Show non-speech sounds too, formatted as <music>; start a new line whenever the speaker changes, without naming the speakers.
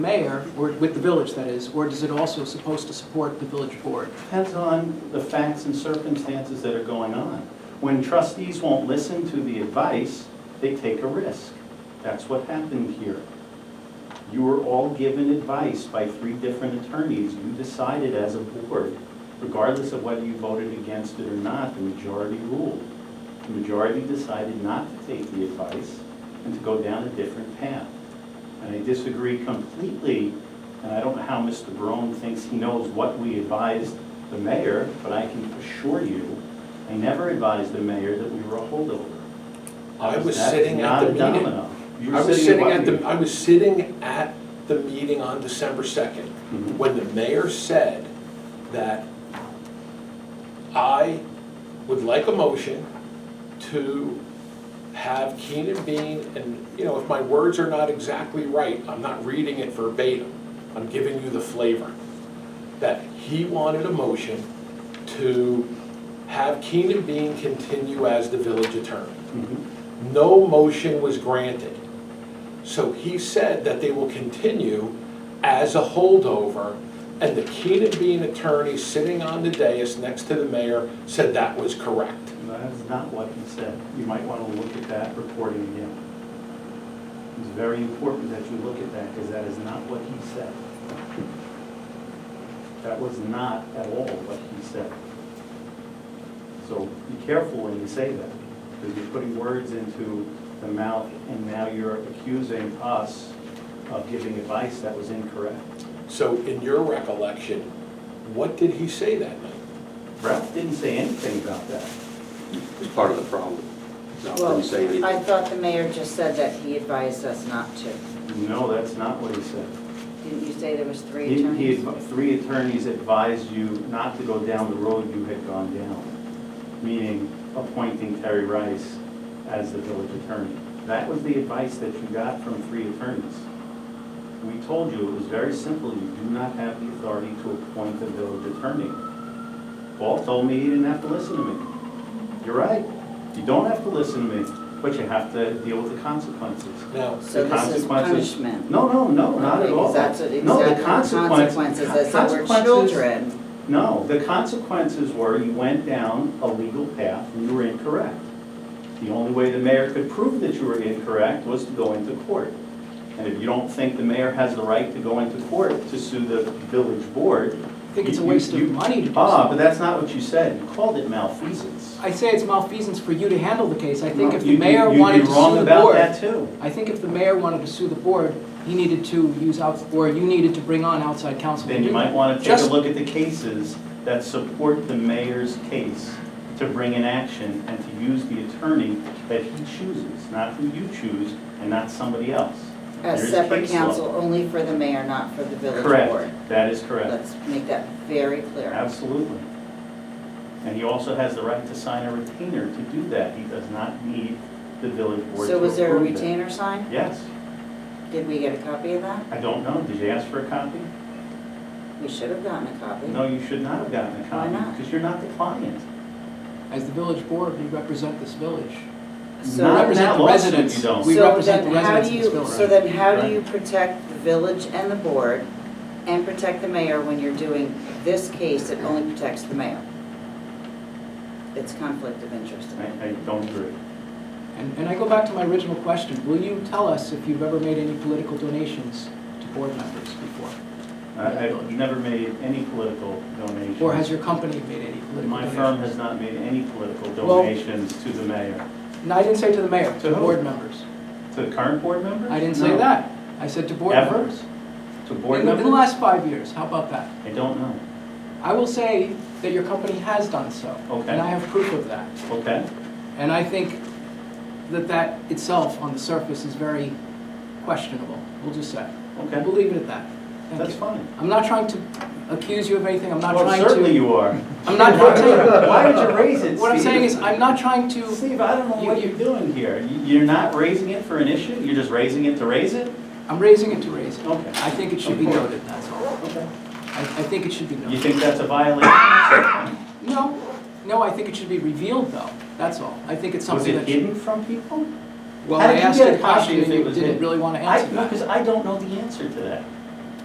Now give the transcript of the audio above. mayor, or with the village, that is, or is it also supposed to support the village board?
Depends on the facts and circumstances that are going on. When trustees won't listen to the advice, they take a risk. That's what happened here. You were all given advice by three different attorneys. You decided as a board, regardless of whether you voted against it or not, the majority ruled. The majority decided not to take the advice and to go down a different path. And I disagree completely, and I don't know how Mr. Barone thinks he knows what we advised the mayor, but I can assure you, I never advised the mayor that we were a holdover.
I was
That's
sitting at the
Not a
meeting.
domino. You were
I was sitting
what
at the,
meeting?
I was sitting at the meeting on December second,
Mhm.
when the mayor said that I would like a motion to have Keenan Bean, and, you know, if my words are not exactly right, I'm not reading it verbatim, I'm giving you the flavor, that he wanted a motion to have Keenan Bean continue as the village attorney.
Mhm.
No motion was granted. So he said that they will continue as a holdover, and the Keenan Bean attorney sitting on the dais next to the mayor said that was correct.
That's not what he said. You might want to look at that recording again. It's very important that you look at that, because that is not what he said. That was not at all what he said. So be careful when you say that, because you're putting words into the mouth, and now you're accusing us of giving advice that was incorrect.
So in your recollection, what did he say that night?
Ralph didn't say anything about that.
is part of the problem. No, I
Well,
didn't say anything.
I thought the mayor just said that he advised us not to.
No, that's not what he said.
Didn't you say there was three
He, he,
attorneys?
adv- three attorneys advised you not to go down the road you had gone down, meaning appointing Terry Rice as the village attorney. That was the advice that you got from three attorneys. We told you, it was very simple, you do not have the authority to appoint a village attorney. Paul told me he didn't have to listen to me. You're right, you don't have to listen to me, but you have to deal with the consequences.
Now,
So
the
this is
consequences-
punishment.
No, no, no, not at
Because
all.
That's what
No,
exactly
the
the
consequence-
consequences, is that we're
consequences-
children.
No, the consequences were you went down a legal path and you were incorrect. The only way the mayor could prove that you were incorrect was to go into court. And if you don't think the mayor has the right to go into court to sue the village board.
I think it's a
you-
waste of
you-
money to do
Ah,
so.
but that's not what you said. You called it malfeasance.
I say it's malfeasance for you to handle the case. I think if
You-
the
you-
mayor
you'd be
wanted to
wrong
sue the
about that
board,
too.
I think if the mayor wanted to sue the board, he needed to use out, or you needed to bring on outside counsel. to
Then you
do
might
that.
want to take a
Just-
look at the cases that support the mayor's case to bring an action and to use the attorney that he chooses, not who you choose and not somebody else. There
As
is
separate
case law.
counsel, only for the mayor, not for the village board.
Correct, that is correct,
Let's make that very clear.
absolutely. And he also has the right to sign a retainer to do that. He does not need the village board to
So was there a
approve that.
retainer signed?
Yes,
Did we get a copy of that?
I don't know, did you ask for a copy?
We should have gotten a copy.
No, you should not have gotten a copy.
not?
Because you're not the client.
As the village board, we represent this village.
So-
We
Not in
represent
that
the
lawsuit, you
residents.
don't.
We
So
represent the
then how
residents
do
of this
you-
village.
So then how do you protect the village and the board and protect the mayor when you're doing this case that only protects the mayor? It's conflict of interest.
I, I don't agree.
And, and I go back to my original question, will you tell us if you've ever made any political donations to board members before?
I- I've never made any political donations.
Or has your company made any political
My
donations?
firm has not made any political
Well-
donations to the mayor.
No, I didn't say to the mayor,
To
to
who?
board members.
To the current board members?
I didn't say
No.
that. I said to board
Ever?
members.
To
In the-
board
in the,
members?
last five years, how about that?
I don't know.
I will say that your company has done so.
Okay.
And I have proof of that.
Okay,
And I think that that itself on the surface is very questionable, we'll just say.
Okay.
We'll leave it at that. Thank
that's
you.
fine.
I'm not trying to accuse you of anything, I'm not
Well,
trying to.
certainly
<laughs>
you are. <laughs>
I'm not trying to.
Why would you raise it,
What I'm
Steve?
saying is, I'm not trying to,
Steve, I don't know
You-
what
you-
you're doing here. You- You're not raising it for an issue? You're just raising it to raise it?
I'm raising it to raise it.
Okay.
I think it should be noted, that's all.
Okay.
I, I think it should be
You
noted.
think that's a violation?
No, no, I think it should be revealed, though, that's all. I think it's
Was
something
it
that,
hidden from people?
well,
How
I
did you
asked
get
you
a
a
copy if
question and
it
you
was
didn't
hidden?
really want to
I,
answer
no, because
that.
I don't know the answer to that.